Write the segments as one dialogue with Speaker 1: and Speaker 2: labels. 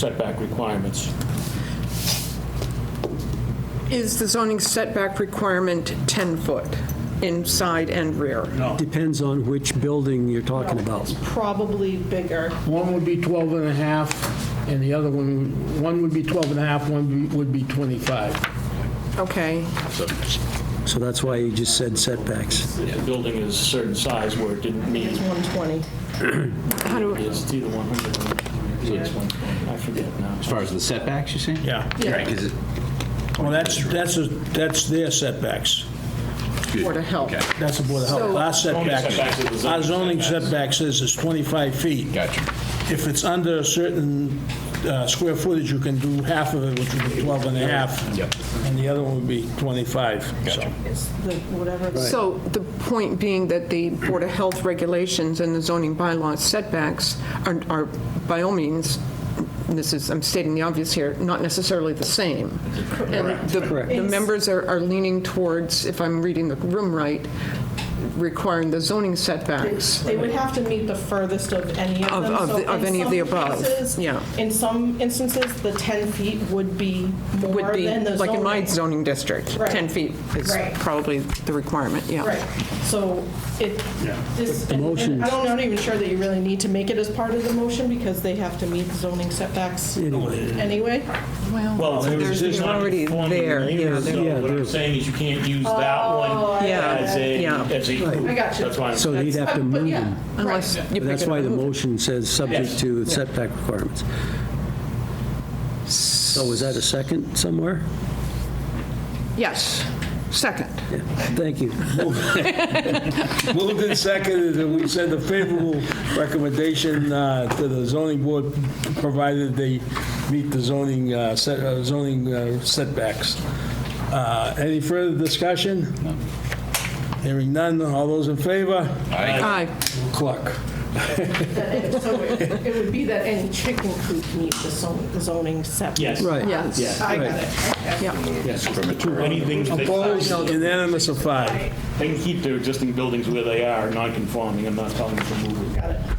Speaker 1: setback requirements.
Speaker 2: Is the zoning setback requirement 10 foot inside and rear?
Speaker 3: Depends on which building you're talking about.
Speaker 4: Probably bigger.
Speaker 5: One would be 12 and a half, and the other one, one would be 12 and a half, one would be 25.
Speaker 2: Okay,
Speaker 3: So that's why you just said setbacks.
Speaker 1: If the building is a certain size where it didn't meet,
Speaker 4: It's 120.
Speaker 2: how do,
Speaker 1: it's either 100 or it's 120. I forget now.
Speaker 6: As far as the setbacks, you see?
Speaker 7: Yeah.
Speaker 6: Right, because it,
Speaker 7: Well, that's, that's, a- that's their setbacks.
Speaker 2: Board of Health?
Speaker 6: Okay.
Speaker 7: That's the Board of Health.
Speaker 2: So-
Speaker 7: Our
Speaker 1: setbacks is
Speaker 7: setbacks,
Speaker 1: the
Speaker 7: our
Speaker 1: zoning
Speaker 7: zoning setbacks is, is 25 feet.
Speaker 6: Gotcha.
Speaker 7: If it's under a certain uh, square footage, you can do half of it, which would be 12 and a half.
Speaker 6: Yep.
Speaker 7: And the other one would be 25, so.
Speaker 4: It's the, whatever.
Speaker 2: So the point being that the Board of Health regulations and the zoning bylaws setbacks are, are by all means, this is, I'm stating the obvious here, not necessarily the same. And the, the members are are leaning towards, if I'm reading the room right, requiring the zoning setbacks.
Speaker 4: They would have to meet the furthest of any of
Speaker 2: Of-
Speaker 4: them.
Speaker 2: of
Speaker 4: So
Speaker 2: the- of
Speaker 4: in
Speaker 2: any of
Speaker 4: some
Speaker 2: the above,
Speaker 4: cases-
Speaker 2: yeah.
Speaker 4: In some instances, the 10 feet would be
Speaker 2: Would
Speaker 4: more
Speaker 2: be,
Speaker 4: than the zoning.
Speaker 2: like in my zoning district,
Speaker 4: Right.
Speaker 2: 10 feet is
Speaker 4: Right.
Speaker 2: probably the requirement, yeah.
Speaker 4: Right, so it, this, and-
Speaker 3: motion-
Speaker 4: and I'm not even sure that you really need to make it as part of the motion, because they have to meet zoning setbacks anyway.
Speaker 1: Well,
Speaker 2: Oh, there's
Speaker 1: there's
Speaker 2: already
Speaker 1: already
Speaker 2: there,
Speaker 1: there,
Speaker 2: yeah,
Speaker 1: yeah.
Speaker 3: there-
Speaker 1: So what I'm saying is you can't use that one
Speaker 2: Yeah,
Speaker 1: as a,
Speaker 2: yeah.
Speaker 1: as a.
Speaker 4: Oh, I got you.
Speaker 1: That's why I'm
Speaker 3: So he'd have to
Speaker 4: But
Speaker 3: move
Speaker 4: yeah,
Speaker 3: them.
Speaker 2: Unless you pick
Speaker 3: That's
Speaker 2: it
Speaker 3: why the
Speaker 2: up.
Speaker 3: motion says subject to setback requirements. So is that a second somewhere?
Speaker 2: Yes, second.
Speaker 3: Yeah. Thank you.
Speaker 7: Moved and seconded, and we send a favorable recommendation uh, to the zoning board, provided they meet the zoning, uh, set- uh, zoning uh, setbacks. Uh, Any further discussion? Hearing none, all those in favor?
Speaker 2: Aye.
Speaker 7: Clock.
Speaker 4: So it it would be that any chicken coop meets the zon- the zoning setback.
Speaker 1: Yes.
Speaker 3: Right.
Speaker 2: Yes.
Speaker 4: I got it.
Speaker 1: Anything, they
Speaker 7: Opposed, unanimous of five.
Speaker 1: they can keep their existing buildings where they are, non-conforming, I'm not telling them to move it.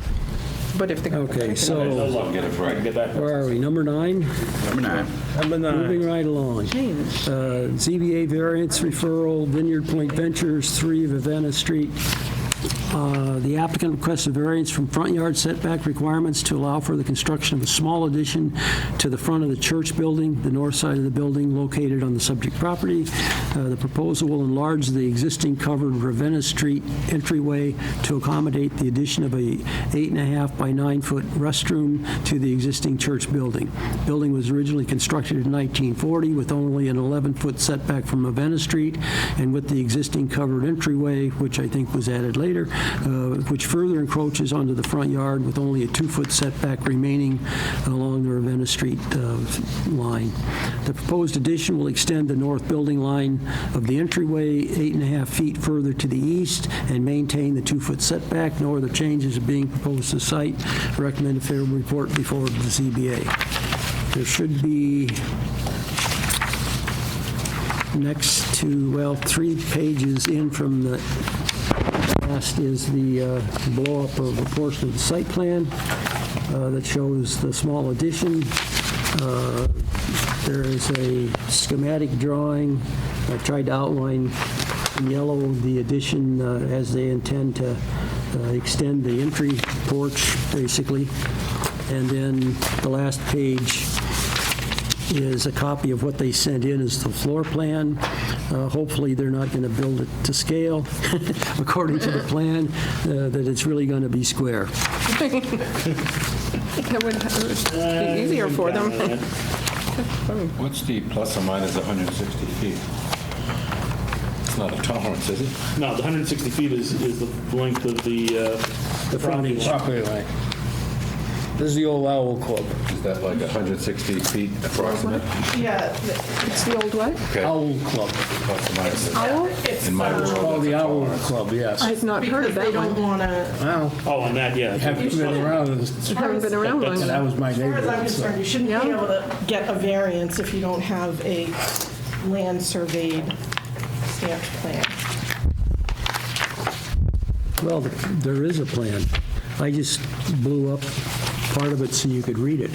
Speaker 2: But if the.
Speaker 3: Okay,
Speaker 1: There's no
Speaker 3: so
Speaker 1: luck. Get it right. Get that.
Speaker 3: where are we? Number nine?
Speaker 6: number nine.
Speaker 7: Number nine.
Speaker 3: Moving right along. Uh, ZBA variance referral, Vineyard Point Ventures, 3 Vivanna Street. Uh, The applicant requests a variance from front yard setback requirements to allow for the construction of a small addition to the front of the church building, the north side of the building located on the subject property. Uh, The proposal will enlarge the existing covered Ravenna Street entryway to accommodate the addition of a eight and a half by nine-foot restroom to the existing church building. Building was originally constructed in 1940 with only an 11-foot setback from Ravenna Street and with the existing covered entryway, which I think was added later, uh, which further encroaches onto the front yard with only a two-foot setback remaining along the Ravenna Street uh, line. The proposed addition will extend the north building line of the entryway eight and a half feet further to the east and maintain the two-foot setback. No other changes are being proposed to site. Recommend a favorable report before the ZBA. There should be next to, well, three pages in from the last is the uh, blow-up of a portion of the site plan uh, that shows the small addition. Uh, There is a schematic drawing. I tried to outline in yellow the addition uh, as they intend to uh, extend the entry porch, basically. And then the last page is a copy of what they sent in as the floor plan. Uh, Hopefully, they're not going to build it to scale, according to the plan, uh, that it's really going to be square.
Speaker 2: That would it would be easier for them.
Speaker 8: What's the plus or minus 160 feet? It's not a tolerance, is it?
Speaker 1: No, the 160 feet is, is the length of the, uh, the property line.
Speaker 7: Property line. This is the old Owl Club.
Speaker 8: Is that like 160 feet approximate?
Speaker 4: Yeah, th-
Speaker 2: It's the old what?
Speaker 7: Owl Club.
Speaker 8: Plus or minus?
Speaker 2: Owl?
Speaker 4: it's,
Speaker 8: In my
Speaker 4: uh,
Speaker 8: world.
Speaker 7: Oh, the Owl Club, yes.
Speaker 2: I've not heard
Speaker 4: because
Speaker 2: of
Speaker 4: they
Speaker 2: that
Speaker 4: don't
Speaker 2: one.
Speaker 4: want to,
Speaker 7: Wow,
Speaker 1: Oh, on that, yeah.
Speaker 7: haven't been around this
Speaker 2: Haven't been around
Speaker 1: That's-
Speaker 2: long.
Speaker 7: That was my
Speaker 4: As far as I'm
Speaker 7: neighborhood. so.
Speaker 4: concerned, you shouldn't be
Speaker 2: Yeah.
Speaker 4: able to get a variance if you don't have a land surveyed stamped plan.
Speaker 3: Well, there is a plan. I just blew up part of it so you could read it.